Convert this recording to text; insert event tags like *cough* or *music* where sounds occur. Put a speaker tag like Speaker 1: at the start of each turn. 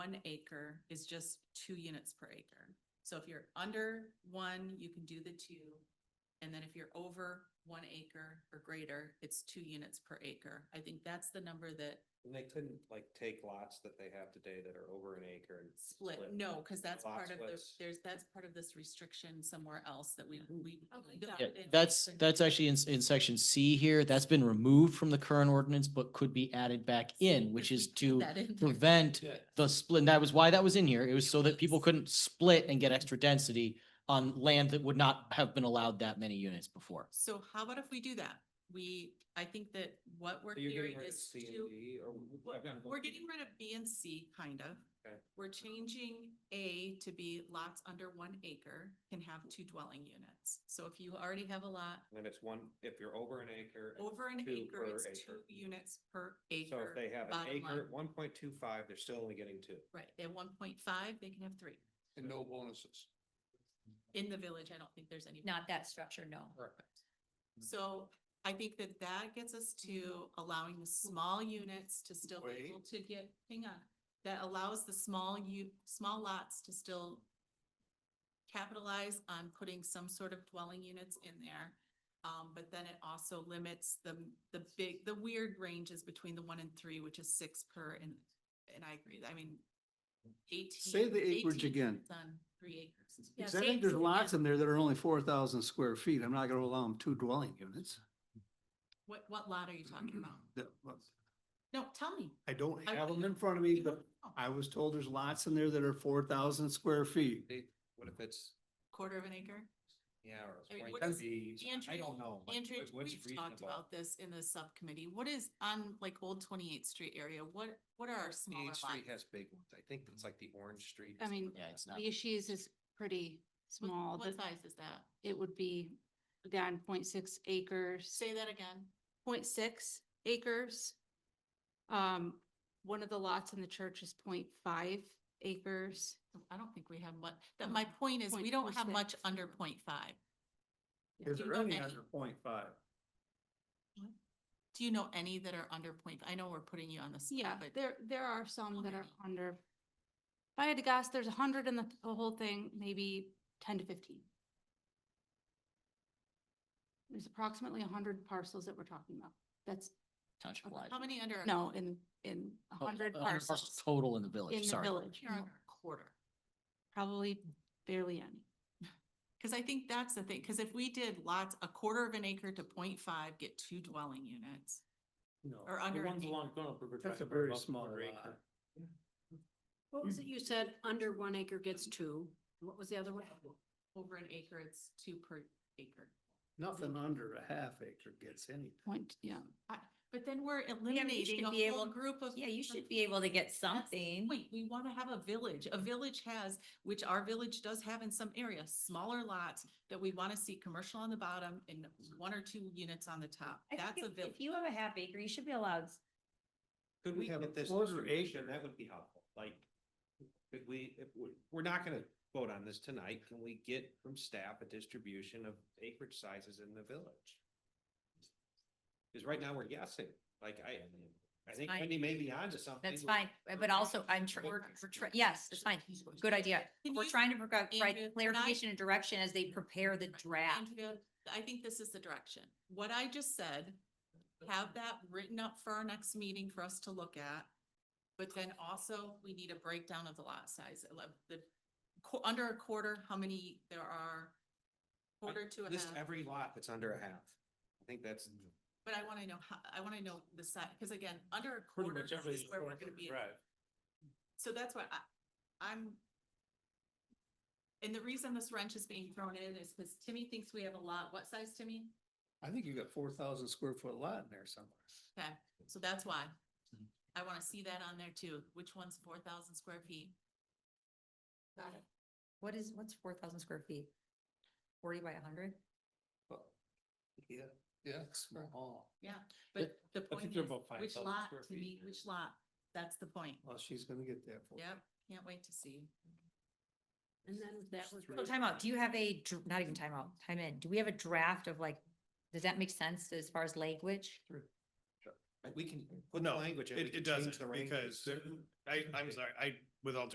Speaker 1: one acre is just two units per acre. So if you're under one, you can do the two. And then if you're over one acre or greater, it's two units per acre. I think that's the number that
Speaker 2: And they couldn't like take lots that they have today that are over an acre and
Speaker 1: split, no, because that's
Speaker 2: Lot
Speaker 1: part of the,
Speaker 2: splits.
Speaker 1: there's, that's part of this restriction somewhere else that we, we.
Speaker 3: Okay.
Speaker 1: the-
Speaker 3: Yeah,
Speaker 4: Yeah,
Speaker 1: it-
Speaker 4: that's,
Speaker 1: it's-
Speaker 4: that's actually in, in section C here. That's been removed from the current ordinance, but could be added back in, which
Speaker 1: *laughs*
Speaker 4: is to
Speaker 1: That in there.
Speaker 4: prevent
Speaker 2: Yeah.
Speaker 4: the split. And that was why that was in here. It was so that people couldn't split and get extra density on land that would not have been allowed that many units before.
Speaker 1: So how about if we do that? We, I think that what we're
Speaker 2: So You're
Speaker 1: hearing
Speaker 2: getting rid of
Speaker 1: is
Speaker 2: C and
Speaker 1: to,
Speaker 2: D or?
Speaker 1: Well, we're getting rid of B and C, kind of.
Speaker 2: Okay.
Speaker 1: We're changing A to be lots under one acre can have two dwelling units. So if you already have a lot
Speaker 2: And it's one, if you're over an acre. and-
Speaker 1: over an
Speaker 2: Two
Speaker 1: acre,
Speaker 2: per
Speaker 1: it's two
Speaker 2: acre.
Speaker 1: units per
Speaker 2: So
Speaker 1: acre.
Speaker 2: if they have an
Speaker 1: bottom
Speaker 2: acre,
Speaker 1: line.
Speaker 2: one point two five, they're still only getting two.
Speaker 1: Right, at one point five, they can have three.
Speaker 2: And no bonuses.
Speaker 1: In the village, I don't think there's any.
Speaker 3: Not that structure, no.
Speaker 5: Mm-hmm.
Speaker 1: So I think that that gets us to allowing the small units to still be able to get, hang on. That allows the small u, small lots to still capitalize on putting some sort of dwelling units in there. Um, but then it also limits the, the big, the weird ranges between the one and three, which is six per and, and I agree, I mean. Eighteen.
Speaker 5: Say the acreage
Speaker 1: 18
Speaker 5: again.
Speaker 1: units On three acres.
Speaker 3: Yeah,
Speaker 5: Cause I think there's lots in there that are only four thousand square feet. I'm not gonna allow them two dwelling units.
Speaker 1: What, what lot are you talking about?
Speaker 5: That- well,
Speaker 1: No, tell me. Oh,
Speaker 5: I don't
Speaker 1: I-
Speaker 5: have them in front of me, but I was told there's lots in there that are four thousand square feet.
Speaker 2: What if it's,
Speaker 1: Quarter of an acre?
Speaker 2: yeah,
Speaker 1: I
Speaker 2: or
Speaker 1: mean,
Speaker 2: it's
Speaker 1: what
Speaker 2: point
Speaker 1: is-
Speaker 2: B, I
Speaker 1: Andrew-
Speaker 2: don't know. like,
Speaker 1: Andrew,
Speaker 2: what- what's
Speaker 1: we've talked
Speaker 2: reasonable?
Speaker 1: about this in the subcommittee. What is on like Old Twenty-Eighth Street area? What, what are our smaller
Speaker 2: 28th
Speaker 1: lots?
Speaker 2: Street has big ones. I think it's like the Orange Street.
Speaker 6: I mean,
Speaker 4: Yeah, it's not.
Speaker 6: Leashes is pretty
Speaker 1: What-
Speaker 6: small,
Speaker 1: What
Speaker 6: but
Speaker 1: size is that?
Speaker 6: it would be down 0.6 acres,
Speaker 1: Say that again.
Speaker 6: 0.6 acres. Um, one of the lots in the church is 0.5 acres.
Speaker 1: I don't think we have much, that
Speaker 6: Um,
Speaker 1: my point is, we don't have much
Speaker 6: 0.46.
Speaker 1: under point five.
Speaker 5: Is
Speaker 1: Do you
Speaker 5: there
Speaker 1: know
Speaker 5: any
Speaker 1: any?
Speaker 5: under point five?
Speaker 1: Do you know any that are under point? I know we're putting you on the
Speaker 6: Yeah,
Speaker 1: spot, but
Speaker 6: there, there are some that are
Speaker 1: Okay.
Speaker 6: under. If I had to guess, there's a hundred in the the whole thing, maybe ten to fifteen. There's approximately a hundred parcels that we're talking about. That's,
Speaker 4: Township wide.
Speaker 1: how many under? a
Speaker 6: no,
Speaker 1: quarter?
Speaker 6: in, in a
Speaker 4: Oh, 100
Speaker 6: hundred
Speaker 4: parcels
Speaker 6: parcels
Speaker 4: Total in the
Speaker 6: in
Speaker 4: village,
Speaker 6: the
Speaker 4: sorry.
Speaker 6: village.
Speaker 1: Here under a Quarter.
Speaker 6: Probably barely any.
Speaker 1: Cause I think that's the thing, cause if we did lots, a quarter of an acre to point five, get two dwelling units.
Speaker 5: No.
Speaker 1: Or under
Speaker 5: The
Speaker 1: an
Speaker 5: ones
Speaker 1: acre.
Speaker 5: along Gunnell, we're That's a very small acre.
Speaker 3: What was it you said, under one acre gets two? And What was the other one?
Speaker 1: Over an acre, it's two per acre.
Speaker 5: Nothing under a half acre gets anything.
Speaker 6: Point, yeah.
Speaker 1: But then we're
Speaker 3: should
Speaker 1: eliminating
Speaker 3: be
Speaker 1: a whole
Speaker 3: able-
Speaker 1: group of.
Speaker 3: Yeah, you should
Speaker 1: of-
Speaker 3: be able to get
Speaker 1: That's the
Speaker 3: something.
Speaker 1: Point, we want to have a village. A village has, which our village does have in some areas, smaller lots that we want to see commercial on the bottom and one or two units on the top.
Speaker 3: I think
Speaker 1: That's a
Speaker 3: if-
Speaker 1: village.
Speaker 3: If you have a half acre, you should be allowed, s-
Speaker 2: Could we
Speaker 5: We have a
Speaker 2: get this
Speaker 5: closer
Speaker 2: information?
Speaker 5: acre.
Speaker 2: That would be helpful, like, could we, if, we- we're not gonna vote on this tonight, can we get from staff a distribution of acreage sizes in the village? Cause right now we're guessing, like, I, I think
Speaker 3: fine.
Speaker 2: Wendy may be onto something.
Speaker 3: that's fine, uh, but also I'm, tr- we're, we're tr- yes, it's fine, good idea.
Speaker 1: Can
Speaker 3: We're
Speaker 1: you-
Speaker 3: trying to provide
Speaker 1: Andrea, can I-
Speaker 3: provide clarification and direction as they prepare the draft.
Speaker 1: Andrea, I think this is the direction. What I just said, have that written up for our next meeting for us to look at. But then also, we need a breakdown of the lot size, I love the, qu- under a quarter, how many there are. Quarter to a
Speaker 2: List
Speaker 1: half,
Speaker 2: every lot that's under a half. I think that's,
Speaker 1: but I wanna know how, I wanna know the size, cause again, under a quarter is where we're gonna be. So that's why I, I'm. And the reason this wrench is being thrown in is cause Timmy thinks we have a lot, what size, Timmy?
Speaker 5: I think you got four thousand square foot lot in there somewhere.
Speaker 1: Okay, so that's why.
Speaker 5: Hmm.
Speaker 1: I wanna see that on there too. Which one's four thousand square feet? Got it.
Speaker 3: What is, what's four thousand square feet? Forty by hundred?
Speaker 5: Yeah, yeah, it's small.
Speaker 1: Yeah, but the point
Speaker 5: think
Speaker 1: is,
Speaker 5: they're about
Speaker 1: which
Speaker 5: 5,000
Speaker 1: lot,
Speaker 5: square
Speaker 1: to me,
Speaker 5: feet.
Speaker 1: which lot? That's the point.
Speaker 5: Well, she's gonna get that for you.
Speaker 1: Yep, can't wait to see.
Speaker 3: And then that was.
Speaker 5: Three.
Speaker 3: So timeout, do you have a, dr- not even timeout, time in, do we have a draft of like, does that make sense as far as language?
Speaker 2: we can put the
Speaker 7: No,
Speaker 2: language. in, we
Speaker 7: It,
Speaker 2: can
Speaker 7: it
Speaker 2: change
Speaker 7: doesn't,
Speaker 2: the range.
Speaker 7: because I, I'm sorry, I with alternative